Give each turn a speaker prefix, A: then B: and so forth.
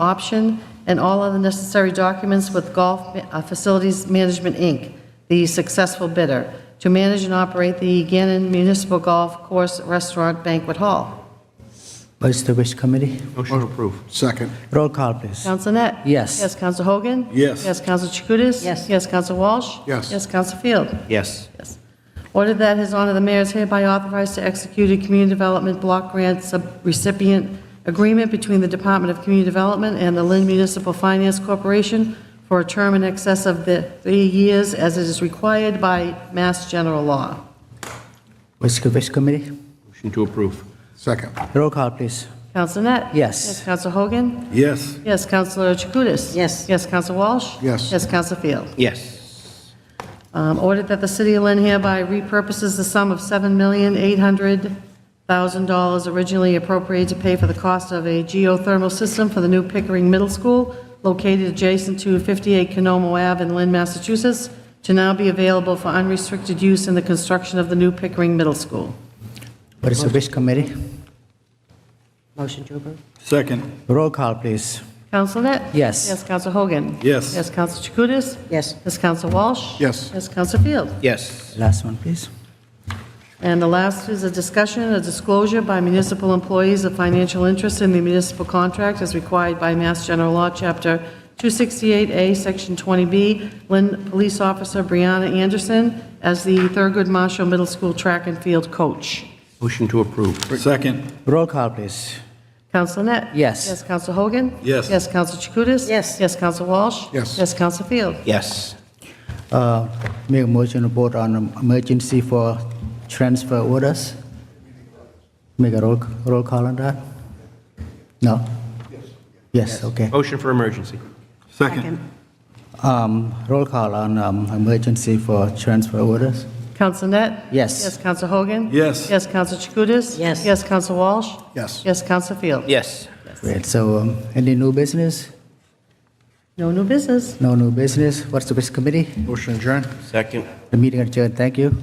A: option and all other necessary documents with Golf uh, Facilities Management, Inc., the successful bidder, to manage and operate the Gannon Municipal Golf Course Restaurant Banquet Hall.
B: What is the wish committee?
C: Motion approved.
D: Second.
B: Roll call, please.
A: Counsel Net?
B: Yes.
A: Yes, Counsel Hogan?
D: Yes.
A: Yes, Counsel Chakutis?
E: Yes.
A: Yes, Counsel Walsh?
D: Yes.
A: Yes, Counsel Field?
C: Yes.
A: Yes. Order that His Honor the Mayor is hereby authorized to execute a Community Development Block Grant Subrecipient Agreement between the Department of Community Development and the Lynn Municipal Finance Corporation for a term in excess of the three years as it is required by Mass General Law.
B: What is the wish committee?
C: Motion to approve.
D: Second.
B: Roll call, please.
A: Counsel Net?
B: Yes.
A: Yes, Counsel Hogan?
D: Yes.
A: Yes, Counselor Chakutis?
E: Yes.
A: Yes, Counsel Walsh?
D: Yes.
A: Yes, Counsel Field?
C: Yes.
A: Um, Ordered that the city of Lynn hereby repurposes the sum of $7,800,000 originally appropriated to pay for the cost of a geothermal system for the new Pickering Middle School located adjacent to 58 Canomo Ave in Lynn, Massachusetts, to now be available for unrestricted use in the construction of the new Pickering Middle School.
B: What is the wish committee?
E: Motion to approve?
D: Second.
B: Roll call, please.
A: Counsel Net?
B: Yes.
A: Yes, Counsel Hogan?
D: Yes.
A: Yes, Counsel Chakutis?
E: Yes.
A: Yes, Counsel Walsh?
D: Yes.
A: Yes, Counsel Field?
C: Yes.
B: Last one, please.
A: And the last is a discussion, a disclosure by municipal employees of financial interest in the municipal contract as required by Mass General Law, Chapter 268A, Section 20B, Lynn Police Officer Brianna Anderson as the Thurgood Marshall Middle School track and field coach.
C: Motion to approve.
D: Second.
B: Roll call, please.
A: Counsel Net?
B: Yes.
A: Yes, Counsel Hogan?
D: Yes.
A: Yes, Counsel Chakutis?
E: Yes.
A: Yes, Counsel Walsh?
D: Yes.
A: Yes, Counsel Field?
C: Yes.
B: Uh, Make a motion to vote on um, emergency for transfer orders. Make a roll, roll call on that? No? Yes, okay.
C: Motion for emergency.
D: Second.
B: Um, Roll call on um, emergency for transfer orders.
A: Counsel Net?
B: Yes.
A: Yes, Counsel Hogan?
D: Yes.
A: Yes, Counsel Chakutis?
E: Yes.
A: Yes, Counsel Walsh?
D: Yes.
A: Yes, Counsel Field?
C: Yes.
B: Great, so um, any new business?
A: No new business.
B: No new business? What's the wish committee?
D: Motion adjourned.
C: Second.
B: The meeting adjourned, thank you.